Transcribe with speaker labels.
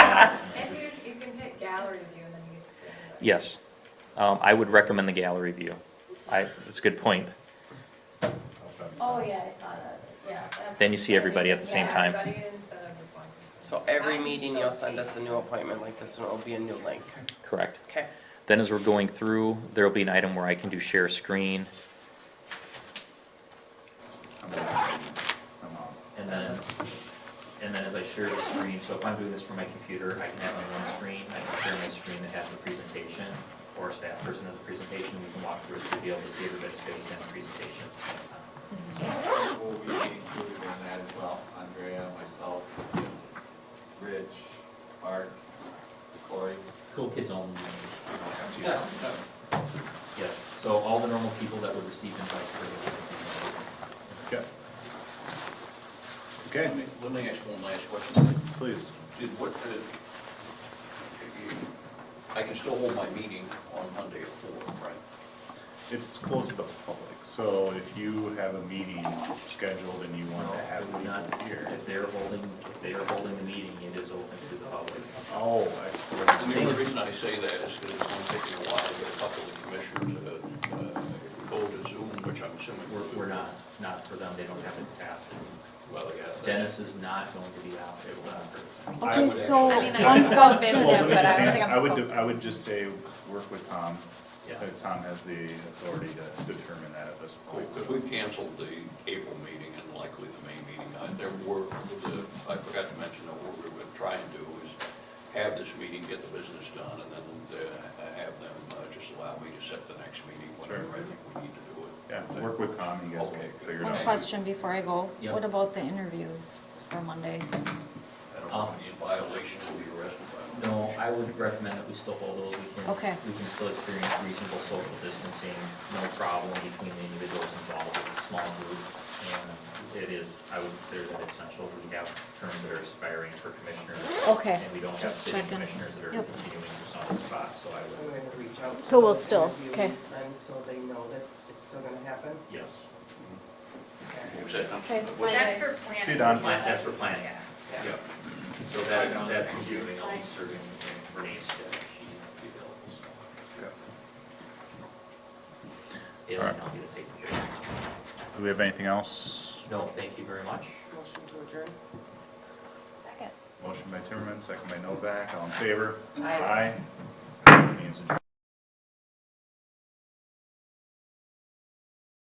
Speaker 1: And you, you can hit gallery view and then you get to see everybody.
Speaker 2: Yes. Um, I would recommend the gallery view. I, that's a good point.
Speaker 1: Oh, yeah, I saw that, yeah. that-
Speaker 2: Then you see everybody at the same time.
Speaker 1: Yeah, everybody instead of just one person.
Speaker 3: So every
Speaker 1: I
Speaker 3: meeting you'll send us a new appointment like this and it'll be a new link.
Speaker 2: Correct.
Speaker 3: Okay.
Speaker 2: Then as we're going through, there'll be an item where I can do share screen. And then, and then as I share the screen, so if I'm doing this from my computer, I can have on one screen, I can share my screen that has the presentation, or a staff person has a presentation, we can walk through it to be able to see everybody's face and the presentation. at the same time.
Speaker 4: Will be included in that as well, Andrea, myself, Rich, Mark, Corey.
Speaker 2: Cool kids only.
Speaker 4: Yeah.
Speaker 2: Yes, so all the normal people that would receive invites for this.
Speaker 5: Okay. Okay,
Speaker 4: Let me- Let me ask one last question.
Speaker 5: please.
Speaker 4: Did what the, I can still hold my meeting on Monday at four, right?
Speaker 5: It's closed to the public, so if you have a meeting scheduled and you want to have
Speaker 2: Would not-
Speaker 5: people here.
Speaker 2: If they're holding, if they are holding the meeting, it is open to the public.
Speaker 5: Oh, I
Speaker 4: And the only reason I say that is because it's going to take me a while to get a couple of the commissioners to uh, go to Zoom, which I'm assuming.
Speaker 2: We're, we're not, not for them, they don't have the capacity.
Speaker 4: Well, yeah. that's-
Speaker 2: Dennis is not going to be out, it will not hurt.
Speaker 4: I
Speaker 6: Okay,
Speaker 4: would
Speaker 6: so
Speaker 1: I
Speaker 6: one
Speaker 1: mean, I would go
Speaker 6: goes
Speaker 1: visit
Speaker 6: to
Speaker 1: him,
Speaker 5: Well, let me
Speaker 1: but I
Speaker 5: just
Speaker 1: don't think
Speaker 5: say,
Speaker 1: I'm
Speaker 5: I would,
Speaker 1: supposed
Speaker 5: ju-
Speaker 1: to.
Speaker 5: I would just say, work with Tom.
Speaker 2: Yeah.
Speaker 5: Uh, Tom has the authority to determine that at this point.
Speaker 4: Because we canceled the April meeting and likely the May meeting. Uh, There were, the- I forgot to mention that what we were trying to do is have this meeting, get the business done, and then uh, have them uh, just allow me to set the next meeting, whatever I think we need to do it.
Speaker 5: Yeah, work with Tom, you guys will
Speaker 4: Okay, good.
Speaker 5: figure it out.
Speaker 6: question before I go.
Speaker 2: Yeah.
Speaker 6: What about the interviews for Monday?
Speaker 4: I don't want to be in violation and be arrested by
Speaker 2: No,
Speaker 4: them.
Speaker 2: I would recommend that we still hold those, we can.
Speaker 6: Okay.
Speaker 2: We can still experience reasonable social distancing, no problem between the individuals involved, it's a small group. And it is, I would consider that essential, we have terms that are expiring for commissioners.
Speaker 6: Okay,
Speaker 2: And we don't have
Speaker 6: just
Speaker 2: sitting
Speaker 6: checking.
Speaker 2: commissioners that are
Speaker 6: Yep.
Speaker 2: continuing for some spots, so I
Speaker 7: So
Speaker 2: would,
Speaker 7: we're gonna reach out. to
Speaker 6: So we'll
Speaker 7: those
Speaker 6: still-
Speaker 7: interviewees
Speaker 6: okay.
Speaker 7: Then, so they know that it's still gonna happen.
Speaker 2: yes.
Speaker 4: Is that-
Speaker 6: Okay.
Speaker 4: What-
Speaker 1: That's for planning.
Speaker 5: See you, Don.
Speaker 2: Plan- That's for planning.
Speaker 4: Yeah.
Speaker 2: So that's, that's doing, I'll be serving in Renee's stead, she won't be available, so. It'll not be to take the break.
Speaker 5: Do we have anything else?
Speaker 2: No, thank you very much.
Speaker 7: Motion to adjourn.
Speaker 6: Second.
Speaker 5: Motion by Timmerman, second by Novak, all in favor?
Speaker 7: Aye.
Speaker 5: Aye. Means adjourned.